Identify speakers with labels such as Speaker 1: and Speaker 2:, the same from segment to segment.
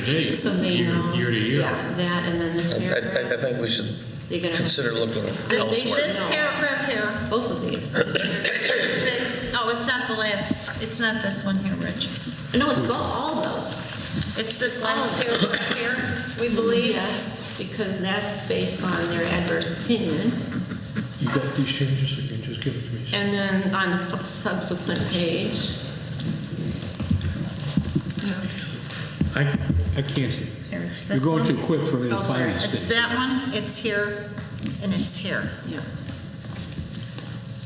Speaker 1: date,
Speaker 2: Just so they
Speaker 1: year-
Speaker 2: know.
Speaker 1: Year to year.
Speaker 2: Yeah, that and then this
Speaker 3: I, I- I
Speaker 2: paragraph.
Speaker 3: think we should
Speaker 2: You're gonna have
Speaker 3: consider
Speaker 2: to
Speaker 3: looking
Speaker 2: fix it. They
Speaker 3: elsewhere.
Speaker 2: should
Speaker 4: This
Speaker 2: know,
Speaker 4: paragraph here,
Speaker 2: both of these. This paragraph.
Speaker 4: fix, oh, it's not the last, it's not this one here, Rich.
Speaker 2: No, it's both, all those.
Speaker 4: It's this
Speaker 2: Oh.
Speaker 4: last paragraph here, we believe.
Speaker 2: Yes, because that's based on their adverse opinion.
Speaker 5: You got these changes, or you can just give it to me?
Speaker 2: And then on the f- subsequent page,
Speaker 5: I, I can't see.
Speaker 4: Here, it's
Speaker 5: You're
Speaker 4: this
Speaker 5: going
Speaker 4: one.
Speaker 5: too quick for me to
Speaker 2: Oh,
Speaker 5: find
Speaker 2: sorry.
Speaker 5: this
Speaker 4: It's
Speaker 5: thing.
Speaker 4: that one, it's here, and it's here.
Speaker 2: yeah,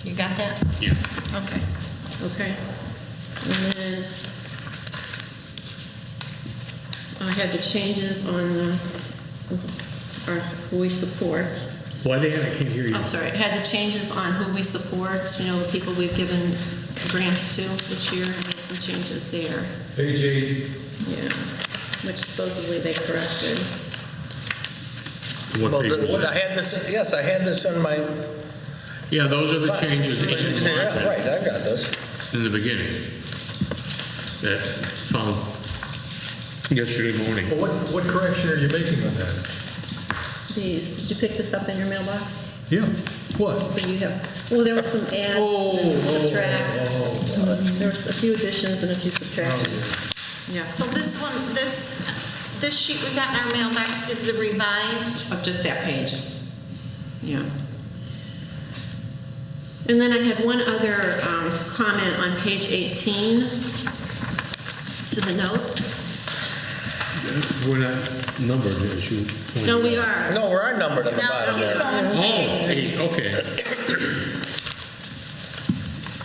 Speaker 4: You got that?
Speaker 1: Yeah.
Speaker 4: Okay.
Speaker 2: okay. And then I had the changes on the, or who we support.
Speaker 1: Why, Dan, I can't hear you.
Speaker 2: I'm sorry, had the changes on who we support, you know, the people we've given grants to this year, and made some changes there.
Speaker 6: Page eight,
Speaker 2: Yeah, which supposedly they corrected.
Speaker 1: What
Speaker 3: Well,
Speaker 1: page
Speaker 3: the-
Speaker 1: is
Speaker 3: what I
Speaker 1: that?
Speaker 3: had this, yes, I had this in my.
Speaker 1: Yeah, those are the changes that you
Speaker 3: Yeah, Right,
Speaker 1: wanted
Speaker 3: I've got this.
Speaker 1: in the beginning. That found yesterday morning.
Speaker 6: Well, what, what correction are you making on that?
Speaker 2: These, did you pick this up in your mailbox?
Speaker 6: Yeah, what?
Speaker 2: So you have, well, there were some adds
Speaker 6: Oh,
Speaker 2: and some subtracts. There was a few additions and a few subtractions.
Speaker 6: Oh,
Speaker 2: Yeah,
Speaker 4: So this one, this, this sheet we got in our mailbox is the revised.
Speaker 2: of just that page. Yeah. And then I had one other um, comment on page 18 to the notes.
Speaker 1: We're not numbered as you pointed
Speaker 2: No, we
Speaker 1: out.
Speaker 2: are.
Speaker 3: No, we're are numbered on the
Speaker 4: Now,
Speaker 3: bottom
Speaker 4: keep
Speaker 3: there.
Speaker 4: going.
Speaker 1: Oh, eight, okay.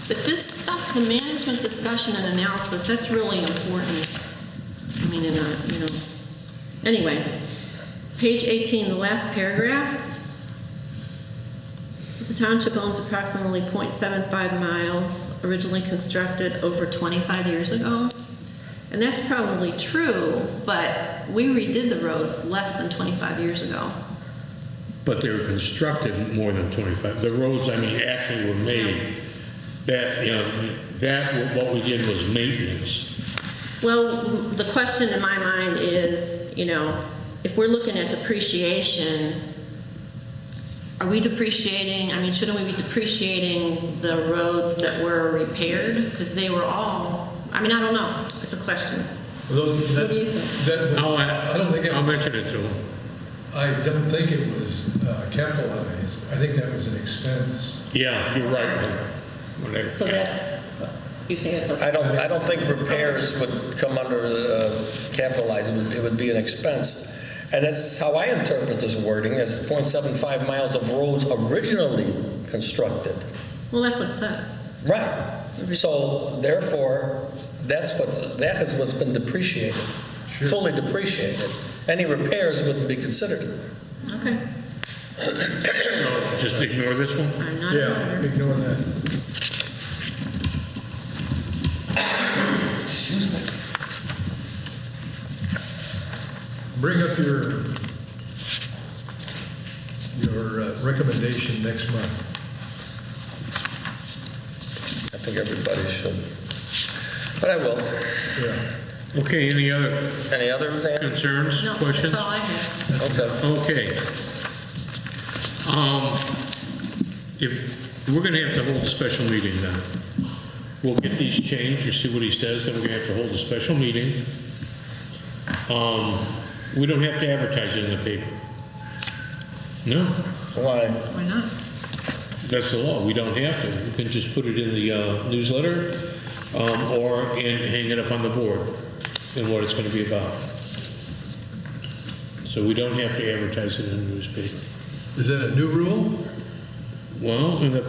Speaker 2: But this stuff, the management discussion and analysis, that's really important. I mean, in a, you know, anyway, page 18, the last paragraph. The township owns approximately .75 miles originally constructed over 25 years ago. And that's probably true, but we redid the roads less than 25 years ago.
Speaker 1: But they were constructed more than 25. The roads, I mean, actually were made. That, you know, that, what we did was maintenance.
Speaker 2: Well, the question in my mind is, you know, if we're looking at depreciation, are we depreciating, I mean, shouldn't we be depreciating the roads that were repaired? Because they were all, I mean, I don't know, it's a question.
Speaker 6: Those-
Speaker 2: What do you think?
Speaker 6: that-
Speaker 1: I'll,
Speaker 6: I don't think,
Speaker 1: I'll
Speaker 6: it-
Speaker 1: mention it to them.
Speaker 6: I don't think it was uh, capitalized. I think that was an expense.
Speaker 1: Yeah, you're right. Whatever.
Speaker 2: So that's, you think that's okay?
Speaker 3: I don't, I don't think repairs would come under uh, capitalized, it would, it would be an expense. And that's how I interpret this wording, as .75 miles of roads originally constructed.
Speaker 2: Well, that's what it says.
Speaker 3: Right. So therefore, that's what's, that is what's been depreciated, fully depreciated. Any repairs wouldn't be considered.
Speaker 2: Okay.
Speaker 1: So Just ignore this one?
Speaker 2: I'm not.
Speaker 6: Yeah, ignore that. Bring up your, your uh, recommendation next month.
Speaker 3: I think everybody should. But I will.
Speaker 6: Yeah.
Speaker 1: Okay, any other
Speaker 3: Any others, Ann?
Speaker 1: concerns,
Speaker 2: No,
Speaker 1: questions?
Speaker 2: that's all I have.
Speaker 3: Okay.
Speaker 1: Okay. Um, If, we're going to have to hold a special meeting then. We'll get these changed, you see what he says, then we're going to have to hold a special meeting. Um, We don't have to advertise it in the paper. No,
Speaker 3: Why?
Speaker 2: Why not?
Speaker 1: that's the law, we don't have to. We can just put it in the uh, newsletter um, or, and hang it up on the board and what it's going to be about. So we don't have to advertise it in the newspaper.
Speaker 6: Is that a new rule?
Speaker 1: Well, in the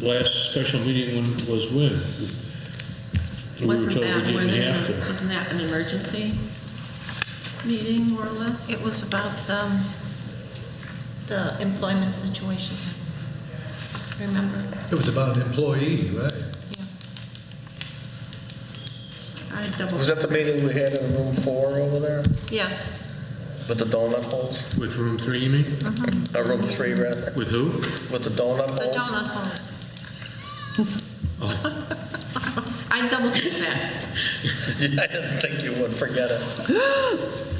Speaker 1: last special meeting when, was when? We were
Speaker 2: Wasn't
Speaker 1: told
Speaker 2: that
Speaker 1: we
Speaker 2: more
Speaker 1: didn't have
Speaker 2: than,
Speaker 1: to.
Speaker 2: wasn't that an emergency meeting, more or less?
Speaker 4: It was about um, the employment situation. Remember?
Speaker 6: It was about an employee, right?
Speaker 4: Yeah.
Speaker 2: I double.
Speaker 3: Was that the meeting we had in room four over there
Speaker 4: Yes.
Speaker 3: with the donut holes?
Speaker 1: With room three, you mean?
Speaker 3: Uh, room three, rather,
Speaker 1: With who?
Speaker 3: with the donut
Speaker 4: The
Speaker 3: holes?
Speaker 4: donut holes.
Speaker 2: I double checked that.
Speaker 3: Yeah, I didn't think you would forget it.